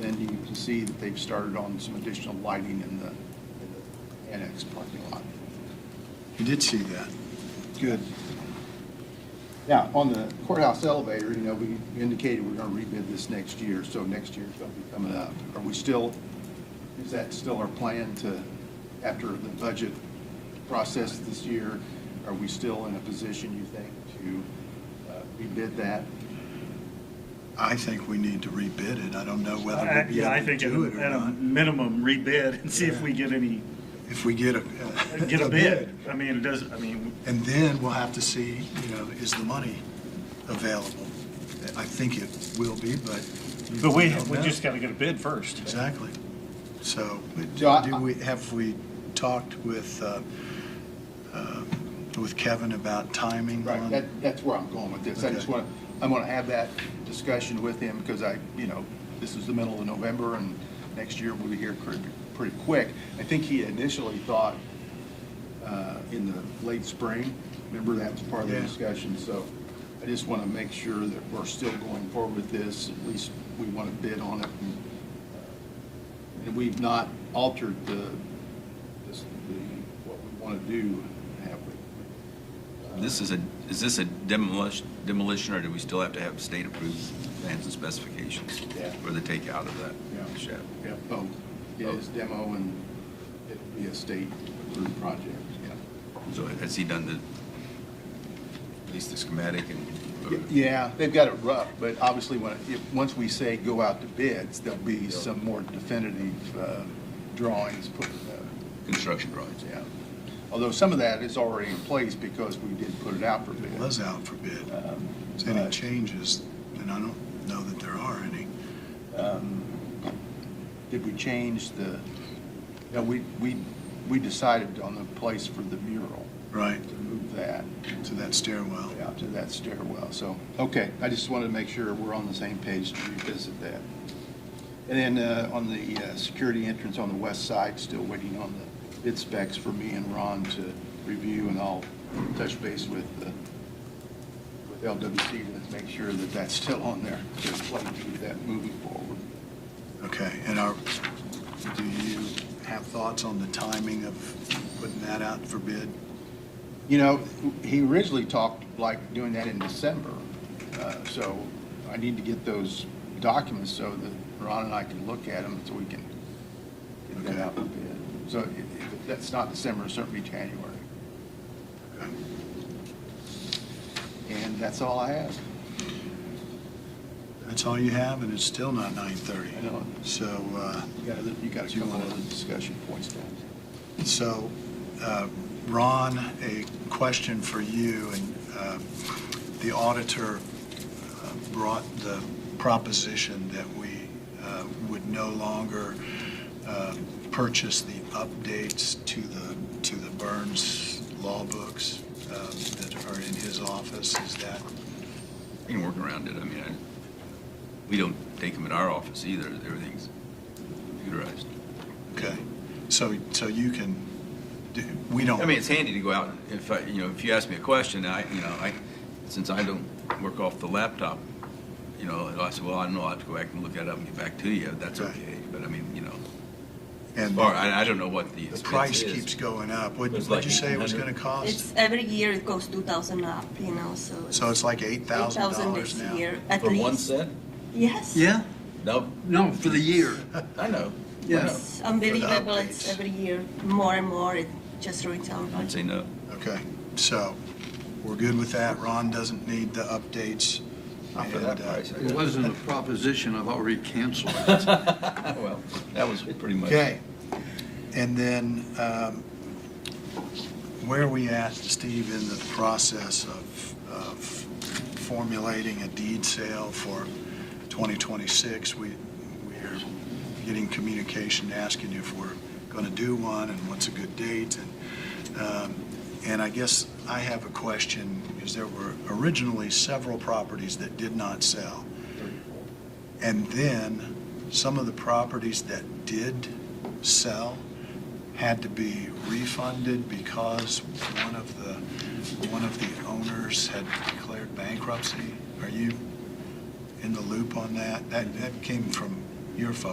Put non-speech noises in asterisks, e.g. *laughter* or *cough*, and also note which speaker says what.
Speaker 1: then you can see that they've started on some additional lighting in the in the annex parking lot.
Speaker 2: You did see that.
Speaker 1: Good. Now, on the courthouse elevator, you know, we indicated we're going to rebid this next year, so next year's going to be coming up. Are we still, is that still our plan to, after the budget process this year, are we still in a position, you think, to uh, rebid that?
Speaker 2: I think we need to rebid it. I don't know whether
Speaker 3: I-
Speaker 2: we'll be
Speaker 3: yeah, I
Speaker 2: able to
Speaker 3: think at
Speaker 2: do
Speaker 3: a-
Speaker 2: it or
Speaker 3: At a
Speaker 2: not.
Speaker 3: minimum, rebid and see if we get any,
Speaker 2: If we get a.
Speaker 3: *laughs* get a bid. I mean, it does, I mean,
Speaker 2: And then we'll have to see, you know, is the money available? I think it will be, but. you
Speaker 4: But we,
Speaker 2: don't
Speaker 4: we
Speaker 2: know.
Speaker 4: just gotta get a bid first.
Speaker 2: Exactly. So, but
Speaker 1: So I-
Speaker 2: do we, have we talked with, uh, uh, with Kevin about timing
Speaker 1: Right,
Speaker 2: on?
Speaker 1: that, that's where I'm going with this. I just
Speaker 2: Okay.
Speaker 1: want, to. I'm going to have that discussion with him because I, you know, this is the middle of November and next year we'll be here pretty, pretty quick. I think he initially thought uh, in the late spring, remember that was part of the
Speaker 2: Yeah.
Speaker 1: discussion? So I just want to make sure that we're still going forward with this, at least we want to bid on it. and, uh, And we've not altered the, this, the, what we want to do, have we?
Speaker 5: This is a, is this a demolition, demolition, or do we still have to have state-approved plans and specifications?
Speaker 1: Yeah.
Speaker 5: For the takeout of that
Speaker 1: Yeah.
Speaker 5: shed?
Speaker 1: Yeah, both. It is demo and it'll be a state approved project, yeah.
Speaker 5: So has he done the, at least the schematic and?
Speaker 1: Yeah, they've got it rough, but obviously when, if, once we say go out to bids, there'll be some more definitive, uh, drawings put, uh,
Speaker 5: Construction drawings, yeah.
Speaker 1: yeah. Although some of that is already in place because we did put it out for bid.
Speaker 2: It was out for bid.
Speaker 1: Um,
Speaker 2: So Any
Speaker 1: but-
Speaker 2: changes, and I don't know that there are any.
Speaker 1: Um, Did we change the, no, we, we, we decided on the place for the mural,
Speaker 2: Right,
Speaker 1: to move that.
Speaker 2: to that stairwell.
Speaker 1: out to that stairwell. So, okay, I just wanted to make sure we're on the same page to revisit that. And then uh, on the uh, security entrance on the west side, still waiting on the bid specs for me and Ron to review, and I'll touch base with, uh, with LWC to make sure that that's still on there, to play through that moving forward.
Speaker 2: Okay, and are, do you have thoughts on the timing of putting that out for bid?
Speaker 1: You know, he originally talked like doing that in December, uh, so I need to get those documents so that Ron and I can look at them so we can get that out a bit. So if- if that's not December, it's certainly January. And that's all I have.
Speaker 2: That's all you have, and it's still not 9:30.
Speaker 1: I know.
Speaker 2: So, uh,
Speaker 1: You got other- You got a couple other discussion points down.
Speaker 2: So, uh, Ron, a question for you, and uh, the auditor uh, brought the proposition that we uh, would no longer uh, purchase the updates to the, to the Burns law books um, that are in his office. Is that,
Speaker 5: We can work around it, I mean, I, we don't take them at our office either, everything's computerized.
Speaker 2: okay? So, so you can, do- we don't.
Speaker 5: I mean, it's handy to go out, if I, you know, if you ask me a question, I, you know, I, since I don't work off the laptop, you know, and I said, well, I don't know, I'll have to go back and look that up and get back to you, that's
Speaker 2: Right.
Speaker 5: okay, but I mean, you know,
Speaker 2: and
Speaker 5: or I, I don't know what the
Speaker 2: The
Speaker 5: expense
Speaker 2: price
Speaker 5: is.
Speaker 2: keeps going up. What
Speaker 5: It's
Speaker 2: did you
Speaker 5: like
Speaker 2: say it was
Speaker 5: 800.
Speaker 2: going to cost?
Speaker 6: It's every year it goes two thousand up, you know, so.
Speaker 2: So it's like eight thousand dollars
Speaker 6: $8,000 this
Speaker 2: now.
Speaker 6: year, at
Speaker 5: For one
Speaker 6: least.
Speaker 5: set?
Speaker 6: Yes.
Speaker 7: Yeah,
Speaker 5: No,
Speaker 7: no, for the year.
Speaker 2: *laughs*
Speaker 5: I know.
Speaker 7: Yes.
Speaker 6: It's unbelievable, it's
Speaker 2: updates.
Speaker 6: every year, more and more, it just ruins our
Speaker 5: I'd
Speaker 6: budget.
Speaker 5: say no.
Speaker 2: Okay, so we're good with that. Ron doesn't need the updates.
Speaker 5: Not for
Speaker 2: And,
Speaker 5: that
Speaker 2: uh,
Speaker 5: price. I
Speaker 7: It
Speaker 5: guess.
Speaker 7: wasn't a proposition, I've already canceled it.
Speaker 5: *laughs* Well, that was pretty much.
Speaker 2: Okay, and then um, where are we at, Steve, in the process of, of formulating a deed sale for 2026? We, we're getting communication asking if we're going to do one and what's a good date. And, um, and I guess I have a question, because there were originally several properties that did not sell. And then, some of the properties that did sell had to be refunded because one of the, one of the owners had declared bankruptcy. Are you in the loop on that? That, that came from your folks.